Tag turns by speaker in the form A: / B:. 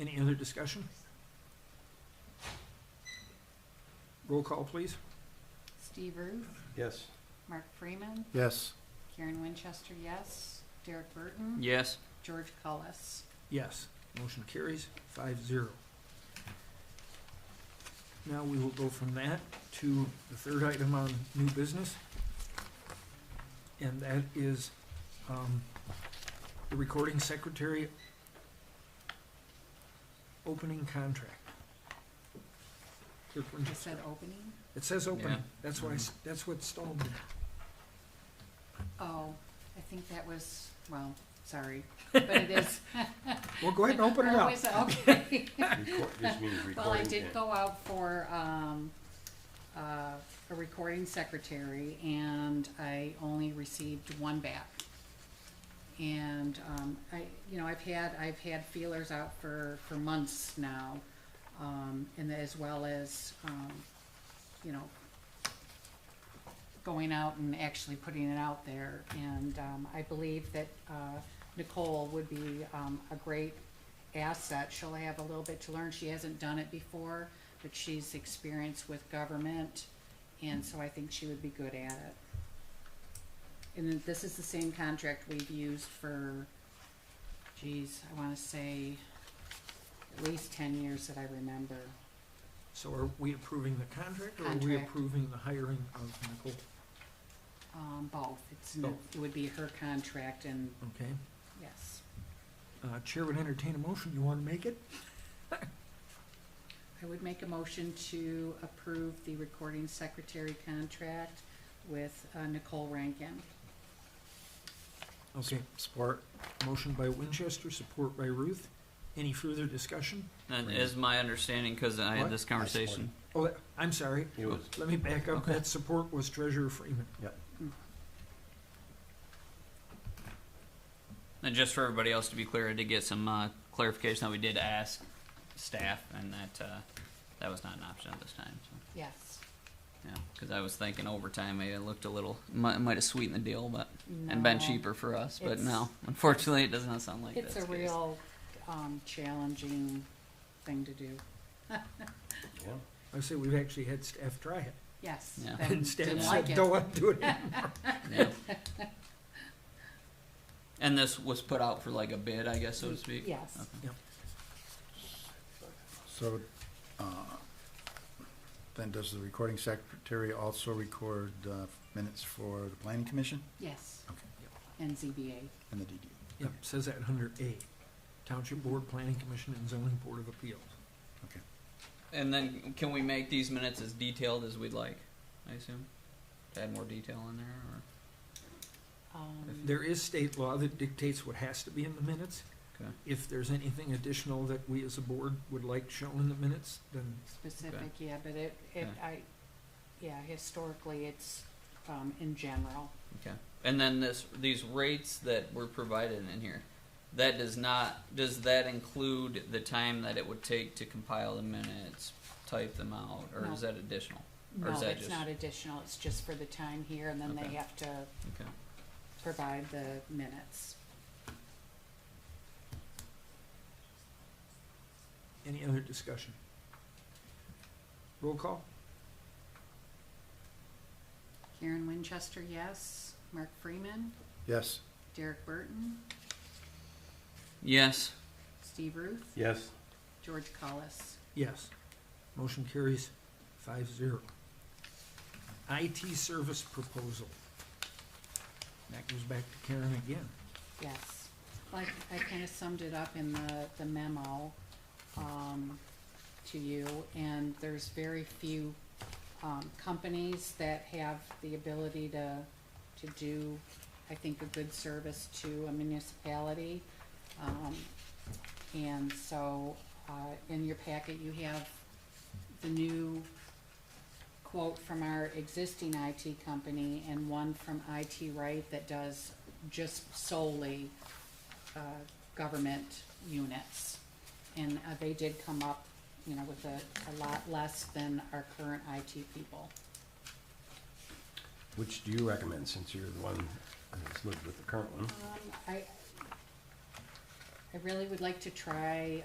A: Any other discussion? Roll call, please.
B: Steve Ruth,
C: Yes.
B: Mark Freeman,
D: Yes.
B: Karen Winchester, yes. Derek Burton,
E: Yes.
B: George Cullis.
A: Yes, motion carries five zero. Now we will go from that to the third item on new business. And that is, um, the recording secretary opening contract. Clerk Winchester.
B: I said opening.
A: It says
E: Yeah.
A: opening, that's why, I s- that's what stalled me.
B: Oh, I think that was, well, sorry, but it is.
A: Well, go ahead and open it
B: Oh,
A: up.
B: is Okay.
C: Record- This means recording.
B: Well, I did
C: and-
B: go out for, um, uh, a recording secretary and I only received one back. And, um, I, you know, I've had, I've had feelers out for, for months now. Um, and as well as, um, you know, going out and actually putting it out there. And, um, I believe that, uh, Nicole would be, um, a great asset. She'll have a little bit to learn. She hasn't done it before, but she's experienced with government, and so I think she would be good at it. And then this is the same contract we've used for, geez, I wanna say at least ten years that I remember.
A: So are we approving the contract or are we
B: Contract.
A: approving the hiring of Nicole?
B: Um, both. It's, n-
A: Both.
B: it would be her contract and,
A: Okay,
B: yes.
A: uh, Chair would entertain a motion, you wanna make it?
B: I would make a motion to approve the recording secretary contract with uh, Nicole Rankin.
A: Okay,
D: Support.
A: motion by Winchester, support by Ruth. Any further discussion?
E: That
C: Right.
E: is my understanding, cause I
A: What?
E: had this conversation.
A: Oh, that- I'm sorry,
C: It was,
A: let me back up.
E: Okay.
A: That support was Treasurer Freeman.
E: And just for everybody else to be clear, I did get some, uh, clarification that we did ask staff and that, uh, that was not an option at this time, so,
B: Yes.
E: yeah. Cause I was thinking overtime, maybe it looked a little, might, might have sweetened the deal, but, and
B: No.
E: been cheaper for us, but no.
B: It's-
E: Unfortunately, it does not sound like that's
B: It's
E: the
B: a
E: case.
B: real, um, challenging thing to do.
C: yeah.
A: I say we've actually had staff try it.
B: Yes.
E: Yeah.
B: they
A: And staff
B: didn't like
A: said,
B: it.
A: don't want to do it.
E: Yeah. And this was put out for like a bid, I guess, so to speak?
B: Yes.
D: So, uh, then does the recording secretary also record uh, minutes for the planning commission
B: Yes.
D: Okay.
B: And ZBA.
D: and the DD?
A: Yep, says that under A, Township Board, Planning Commission, and Zoning Board of Appeals.
E: And then can we make these minutes as detailed as we'd like, I assume? To add more detail in there or
B: Um,
A: There is state law that dictates what has to be in the minutes.
E: Okay.
A: If there's anything additional that we as a board would like shown in the minutes, then
B: Specific, yeah, but it, it,
E: Okay.
B: I, yeah, historically, it's, um, in general.
E: okay. And then this these rates that were provided in here, that does not does that include the time that it would take to compile the minutes, type them out, or
B: No.
E: is that additional? Or
B: No,
E: is that
B: it's
E: just-
B: not additional, it's just for the time here, and then they
E: Okay.
B: have to
E: Okay.
B: provide the minutes.
A: any other discussion? Roll call?
B: Karen Winchester, yes. Mark Freeman,
D: Yes.
B: Derek Burton,
E: Yes.
B: Steve Ruth,
C: Yes,
B: George Cullis.
A: Yes. Motion carries five zero. IT service proposal. That goes back to Karen again.
B: Yes, like, I kind of summed it up in the, the memo, um, to you, and there's very few, um, companies that have the ability to, to do, I think, a good service to a municipality. Um, and so, uh, in your packet, you have the new quote from our existing IT company and one from IT Right that does just solely uh, government units. And uh, they did come up, you know, with a, a lot less than our current IT people.
C: which do you recommend, since you're the one that's lived with the current one?
B: Um, I, I really would like to try